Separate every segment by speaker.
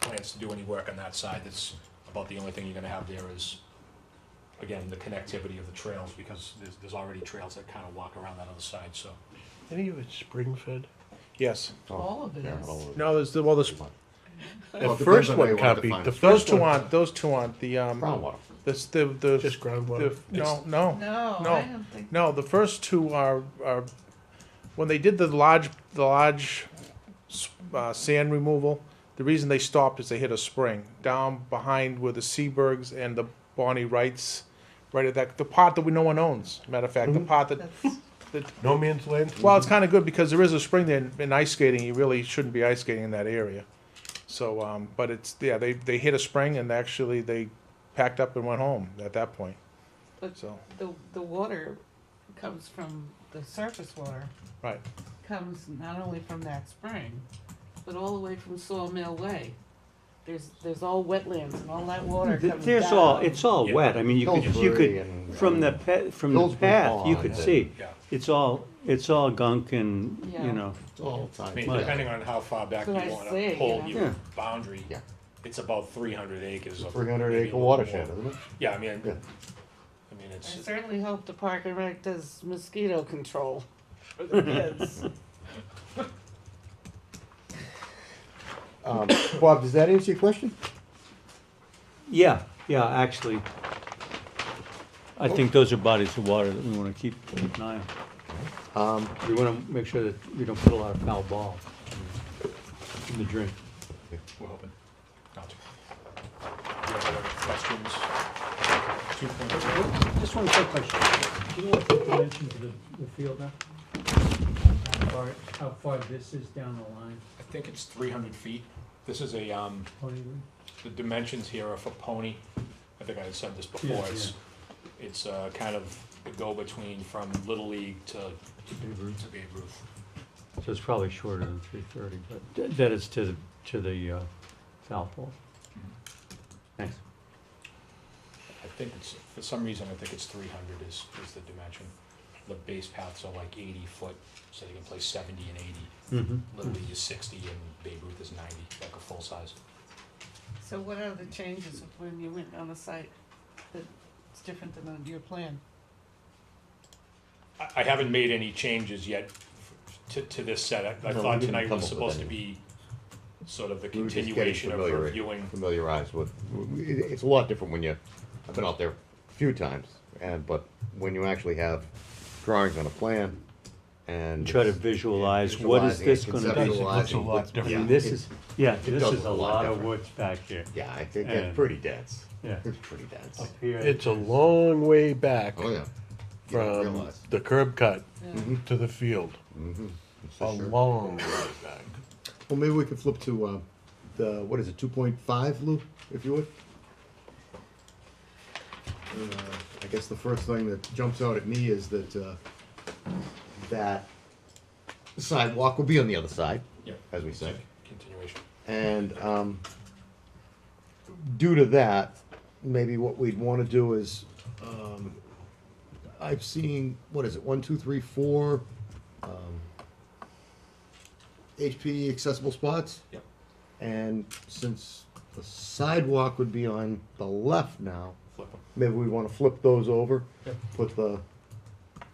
Speaker 1: plans to do any work on that side, that's about the only thing you're gonna have there is, again, the connectivity of the trails, because there's, there's already trails that kinda walk around that other side, so.
Speaker 2: Any of it's spring fed?
Speaker 3: Yes.
Speaker 4: All of it
Speaker 5: Yeah,
Speaker 4: is.
Speaker 5: all of it.
Speaker 3: No, there's the, well, there's,
Speaker 5: Well,
Speaker 3: the
Speaker 5: it depends
Speaker 3: first
Speaker 5: on how
Speaker 3: one
Speaker 5: you want
Speaker 3: can't
Speaker 5: to
Speaker 3: be,
Speaker 5: define
Speaker 3: the
Speaker 5: it.
Speaker 3: first
Speaker 5: First
Speaker 3: two
Speaker 5: one-
Speaker 3: aren't, those two aren't, the, um,
Speaker 5: Groundwater.
Speaker 3: this, the, the.
Speaker 2: Just groundwater.
Speaker 3: the- No, no,
Speaker 4: No,
Speaker 3: No.
Speaker 4: I don't think,
Speaker 3: no, the first two are, are, when they did the large, the large, s- uh, sand removal, the reason they stopped is they hit a spring down behind where the Seabergs and the Bonnie Wrights, right at that, the part that we, no one owns, matter of
Speaker 5: Mm-hmm.
Speaker 3: fact, the part that,
Speaker 4: that's,
Speaker 2: No man's land?
Speaker 3: well, it's kinda good because there is a spring there and- and ice skating, you really shouldn't be ice skating in that area. So, um, but it's, yeah, they, they hit a spring and actually they packed up and went home at that point,
Speaker 4: but
Speaker 3: so,
Speaker 4: the, the water comes from, the surface water
Speaker 3: right.
Speaker 4: comes not only from that spring, but all the way from Sawmill Way. There's, there's all wetlands and all that water
Speaker 6: Th-
Speaker 4: comes
Speaker 6: There's all,
Speaker 4: down.
Speaker 6: it's all wet, I mean, you could, you
Speaker 5: Pillsbury
Speaker 6: could,
Speaker 5: and-
Speaker 6: from the pa, from the
Speaker 5: Pillsbury
Speaker 6: path, you could
Speaker 5: Pond.
Speaker 6: see,
Speaker 1: Yeah.
Speaker 6: it's all, it's all gunk and,
Speaker 4: Yeah.
Speaker 6: you know,
Speaker 5: It's all
Speaker 1: I mean,
Speaker 5: tied
Speaker 1: depending on how far back you
Speaker 4: That's what I
Speaker 1: wanna
Speaker 4: say,
Speaker 1: pull
Speaker 4: you
Speaker 6: know.
Speaker 1: your
Speaker 6: Yeah.
Speaker 1: boundary,
Speaker 5: Yeah.
Speaker 1: it's about three hundred acres. of-
Speaker 5: Three hundred
Speaker 1: maybe a
Speaker 5: acre
Speaker 1: little more.
Speaker 5: watershed, isn't it?
Speaker 1: Yeah, I mean, I
Speaker 5: Yeah.
Speaker 1: mean,
Speaker 4: I
Speaker 1: it's,
Speaker 4: certainly hope the Park and Rec does mosquito control for the kids.
Speaker 5: Um, Bob, does that answer your question?
Speaker 6: yeah, yeah, actually. I think those are bodies of water that we wanna keep keep an eye on.
Speaker 5: Um,
Speaker 6: We wanna make sure that we don't put a lot of foul ball in the drink.
Speaker 1: we're hoping not to. Do you have any other questions? Two point-
Speaker 6: Just one quick question, do you know what the dimensions of the, the field now? How far, how far this is down the line,
Speaker 1: I think it's three hundred feet. This is a, um,
Speaker 6: Tony?
Speaker 1: the dimensions here are for Pony. I think I had said this before. It's, it's, uh, kind of the go-between from Little League to, to Babe Ruth.
Speaker 6: So it's probably shorter than three thirty, but th- that is to the, to the uh, foul pole. Thanks.
Speaker 1: I think it's, for some reason, I think it's three hundred is, is the dimension. The base paths are like eighty foot, so they can play seventy and eighty.
Speaker 2: Mm-hmm.
Speaker 1: Little League is sixty and Babe Ruth is ninety, like a full size.
Speaker 4: So what are the changes of when you went on the site that's different than on your plan?
Speaker 1: I, I haven't made any changes yet to, to this set. I, I
Speaker 5: No, we
Speaker 1: thought
Speaker 5: didn't
Speaker 1: tonight
Speaker 5: come up
Speaker 1: was
Speaker 5: with
Speaker 1: supposed to
Speaker 5: any.
Speaker 1: be sort of the
Speaker 5: We were just getting
Speaker 1: continuation of
Speaker 5: familiar-
Speaker 1: reviewing.
Speaker 5: Familiarized with, it- it's a lot different when you, I've been out there a few times, and, but when you actually have drawings on a plan and.
Speaker 6: Try to
Speaker 5: it's
Speaker 6: visualize, what is
Speaker 5: visualizing
Speaker 6: this
Speaker 5: it,
Speaker 6: gonna
Speaker 5: conceptualizing
Speaker 6: be?
Speaker 2: a lot
Speaker 5: what's-
Speaker 2: different.
Speaker 6: I mean,
Speaker 5: yeah,
Speaker 6: this
Speaker 5: it-
Speaker 6: is, yeah, this
Speaker 5: does
Speaker 6: is
Speaker 5: look
Speaker 6: a
Speaker 5: a lot
Speaker 6: lot of
Speaker 5: different.
Speaker 6: woods back here.
Speaker 5: Yeah, I think
Speaker 6: and-
Speaker 5: it's pretty dense.
Speaker 6: Yeah.
Speaker 5: It's pretty dense.
Speaker 6: Up here.
Speaker 2: It's a long way back
Speaker 5: Oh, yeah. You don't
Speaker 2: from
Speaker 5: realize.
Speaker 2: the curb cut
Speaker 4: Yeah.
Speaker 2: to the field.
Speaker 5: It's
Speaker 2: A
Speaker 5: a sure-
Speaker 2: long way back.
Speaker 5: Well, maybe we could flip to, uh, the, what is it, two point five, Lou, if you would? Uh, I guess the first thing that jumps out at me is that, uh, that sidewalk will be on the other side,
Speaker 1: Yeah,
Speaker 5: as we said.
Speaker 1: continuation.
Speaker 5: And, um, due to that, maybe what we'd wanna do is, um, I've seen, what is it, one, two, three, four, um, HP accessible spots?
Speaker 1: Yep.
Speaker 5: And since the sidewalk would be on the left now,
Speaker 1: Flip 'em.
Speaker 5: maybe we wanna flip those over,
Speaker 1: Yep.
Speaker 5: put the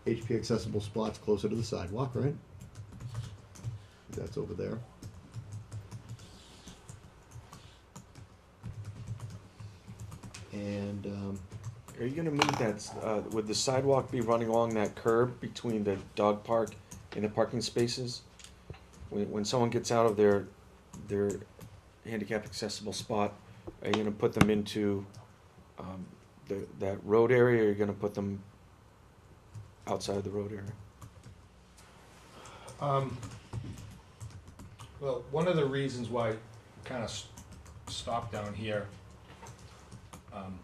Speaker 5: HP accessible spots closer to the sidewalk, right? That's over there. And, um,
Speaker 7: Are you gonna move that, uh, would the sidewalk be running along that curb between the dog park and the parking spaces? When, when someone gets out of their, their handicap accessible spot, are you gonna put them into, um, the, that road area, or are you gonna put them outside the road area?
Speaker 1: Um, well, one of the reasons why I kind of stopped down here, um,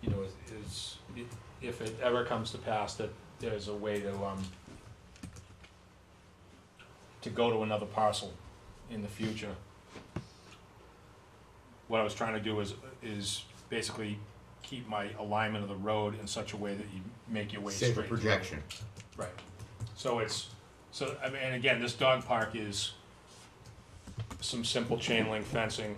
Speaker 1: you know, is, is i- if it ever comes to pass that there's a way to, um, to go to another parcel in the future. What I was trying to do is, is basically keep my alignment of the road in such a way that you make your way straight.
Speaker 5: save a
Speaker 1: through.
Speaker 5: projection.
Speaker 1: Right. So it's, so, I mean, and again, this dog park is some simple chain link fencing